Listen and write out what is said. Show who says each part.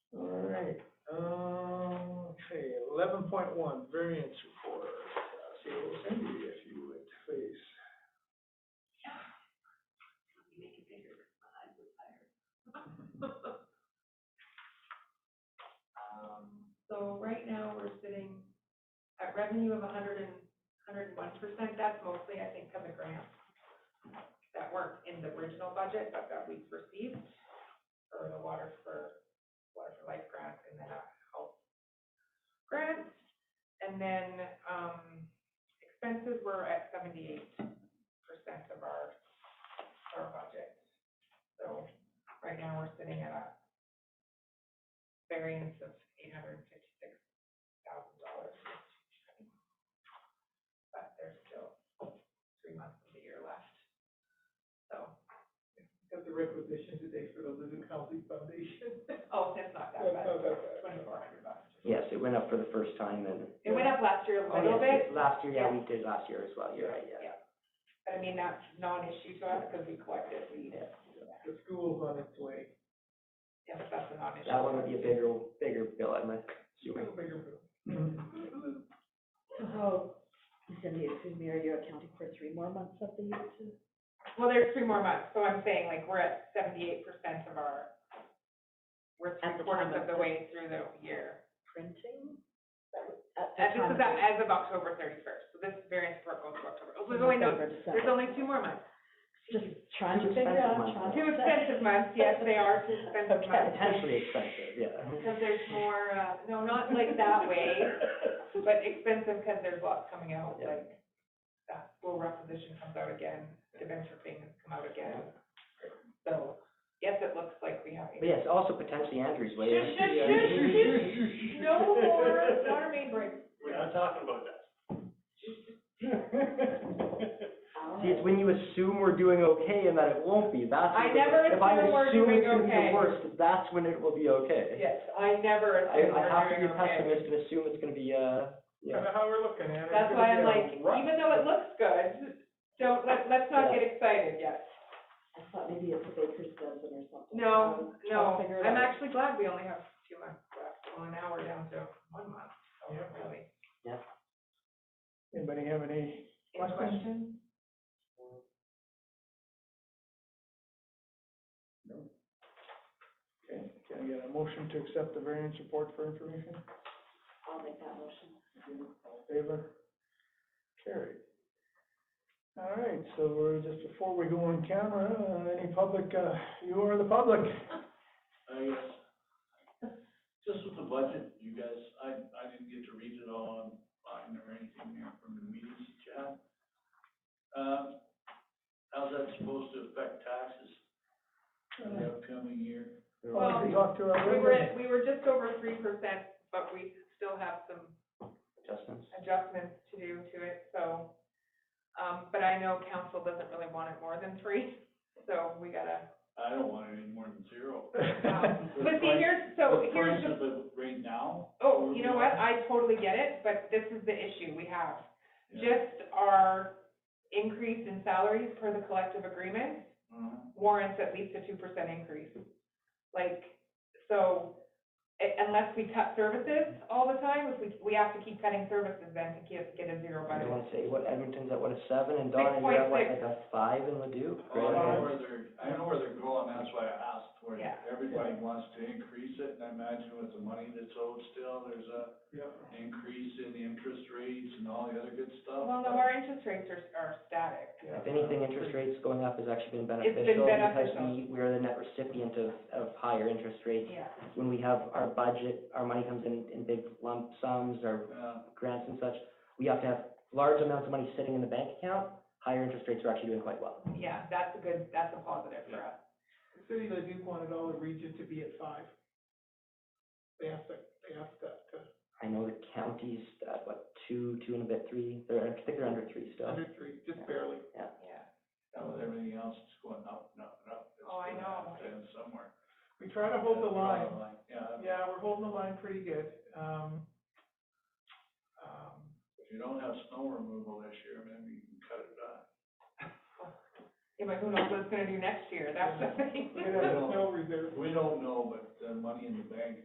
Speaker 1: right, um, okay, eleven point one, variance report. So Cindy, if you would, please.
Speaker 2: Um, so right now, we're sitting at revenue of a hundred and, hundred and one percent, that's mostly, I think, of the grants that weren't in the original budget, but that we've received, or the Water for, Water for Life grant and the health grant. And then, um, expenses were at seventy-eight percent of our, our budget. So right now, we're sitting at a variance of eight hundred and fifty-six thousand dollars. But there's still three months of the year left. So,
Speaker 1: Got the requisition today for the Living County Foundation.
Speaker 2: oh, that's not that bad, twenty-four hundred bucks.
Speaker 3: Yes, it went up for the first time and.
Speaker 2: It went up last year a
Speaker 3: Oh,
Speaker 2: little
Speaker 3: yes,
Speaker 2: bit.
Speaker 3: Last year, yeah,
Speaker 2: Yeah.
Speaker 3: we did last year as well, you're right, yeah.
Speaker 2: But I mean, that's non-issue to us because we collected, we,
Speaker 3: Yeah.
Speaker 1: The school's on its way.
Speaker 2: yeah, that's a non-issue.
Speaker 3: That one would be a bigger, bigger bill, I'm assuming.
Speaker 4: Oh, Cindy, excuse me, are you accounting for three more months of the year too?
Speaker 2: Well, there's three more months, so I'm saying like we're at seventy-eight percent of our, we're three
Speaker 4: At the
Speaker 2: quarters
Speaker 4: time
Speaker 2: of
Speaker 4: of
Speaker 2: the
Speaker 4: this.
Speaker 2: way through the year.
Speaker 4: Printing?
Speaker 2: And this is at- as of October thirty-first, so this variance report goes to October, so there's only no, there's only two more months.
Speaker 4: Just trying to
Speaker 3: Too
Speaker 4: figure
Speaker 3: expensive
Speaker 4: out,
Speaker 3: months,
Speaker 4: trying to.
Speaker 2: Two expensive months, yes, they are two expensive
Speaker 4: Okay.
Speaker 2: months,
Speaker 3: Potentially expensive, yeah.
Speaker 2: because there's more, uh, no, not like that way, but expensive because there's lots coming out,
Speaker 3: Yeah.
Speaker 2: like, that school requisition comes out again, the venture things come out again. So, yes, it looks like we have.
Speaker 3: But yes, also potentially Andrew's way.
Speaker 2: Shush, shush, shush, No more water main break.
Speaker 5: We're not talking about that.
Speaker 3: See, it's when you assume we're doing okay and that it won't be, that's.
Speaker 2: I
Speaker 3: when-
Speaker 2: never
Speaker 3: if I'm
Speaker 2: assume we're doing
Speaker 3: assuming it's gonna be the
Speaker 2: okay.
Speaker 3: worst, That's when it will be okay.
Speaker 2: Yes, I never
Speaker 3: I,
Speaker 2: assume
Speaker 3: I
Speaker 2: we're
Speaker 3: have to be
Speaker 2: doing
Speaker 3: a
Speaker 2: okay.
Speaker 3: pessimist and assume it's gonna be, uh,
Speaker 1: Kind of
Speaker 3: yeah.
Speaker 1: how we're looking at it.
Speaker 2: That's why I'm
Speaker 1: Gonna
Speaker 2: like,
Speaker 1: get a rut.
Speaker 2: even though it looks good, don't, let, let's not
Speaker 3: Yeah.
Speaker 2: get excited yet.
Speaker 4: I thought maybe it's a baker's dozen or something.
Speaker 2: No,
Speaker 4: Um, trying to
Speaker 2: no,
Speaker 4: figure it
Speaker 2: I'm
Speaker 4: out.
Speaker 2: actually glad we only have two months left, well, now we're down to one month, so
Speaker 1: Yeah.
Speaker 2: really.
Speaker 1: Anybody have any?
Speaker 2: Any questions?
Speaker 1: Okay, can I get a motion to accept the variance report for information?
Speaker 4: I'll make that motion.
Speaker 1: All in favor? Carried. All right, so we're, just before we go on camera, uh, any public, uh, you are the public.
Speaker 5: I guess, just with the budget, you guys, I, I didn't get to read it all online or anything here from the meetings that you had. Um, how's that supposed to affect taxes in the upcoming year?
Speaker 2: Well,
Speaker 1: We Talk to our.
Speaker 2: We were, at- we were just over three percent, but we still have some
Speaker 3: Adjustments.
Speaker 2: adjustments to do to it, so. Um, but I know council doesn't really want it more than three, so we gotta,
Speaker 5: I don't want it any more than zero.
Speaker 2: um,
Speaker 5: The
Speaker 2: but see,
Speaker 5: price-
Speaker 2: here's, so
Speaker 5: the
Speaker 2: here's
Speaker 5: price
Speaker 2: the
Speaker 5: of it Right now?
Speaker 2: Oh, you know what, I totally get it, but this is the issue we have.
Speaker 5: Yeah.
Speaker 2: Just our increase in salaries per the collective agreement
Speaker 5: Uh-huh.
Speaker 2: warrants at least a two percent increase. Like, so, i- unless we cut services all the time, if we, we have to keep cutting services then to get, get a zero
Speaker 3: I
Speaker 2: budget.
Speaker 3: don't wanna say, what, Edmonton's at what, a seven, and Donna, you're at what, like
Speaker 2: 6.6.
Speaker 3: a five in Ladue?
Speaker 5: Oh, I
Speaker 3: Grand
Speaker 5: know
Speaker 3: Island.
Speaker 5: where they're, I know where they're going, that's why I asked for it.
Speaker 2: Yeah.
Speaker 5: Everybody wants to increase it, and I imagine with the money that's owed still, there's a
Speaker 1: Yeah.
Speaker 5: increase in the interest rates and all the other good stuff.
Speaker 2: Well, no, our interest rates are, are static.
Speaker 1: Yeah.
Speaker 3: If anything, interest rates going up has actually been
Speaker 2: It's been beneficial.
Speaker 3: beneficial because we, we are the net recipient of, of higher interest rates.
Speaker 2: Yeah.
Speaker 3: When we have our budget, our money comes in, in big lump sums or
Speaker 5: Yeah,
Speaker 3: grants and such, we have to have large amounts of money sitting in the bank account. Higher interest rates are actually doing quite well.
Speaker 2: Yeah, that's a good, that's a positive for us.
Speaker 1: The city of Duke wanted all the region to be at five. They asked that, they asked that uh, to,
Speaker 3: I know the county's at what, two, two and a bit, three, they're, I think they're under three still.
Speaker 1: under three, just barely.
Speaker 2: Yeah.
Speaker 5: now with everything else, it's going up, and up, and up. It's
Speaker 2: Oh, I
Speaker 5: gonna
Speaker 2: know.
Speaker 5: have to end somewhere.
Speaker 1: We try to hold the line.
Speaker 5: Yeah,
Speaker 1: Yeah, we're holding the line pretty good. Um, um,
Speaker 5: if you don't have snow removal this year, maybe you can cut it back.
Speaker 2: Yeah, but who knows what it's gonna do next year, that's the thing.
Speaker 1: we have a snow reserve.
Speaker 5: We don't know, but the money in the bank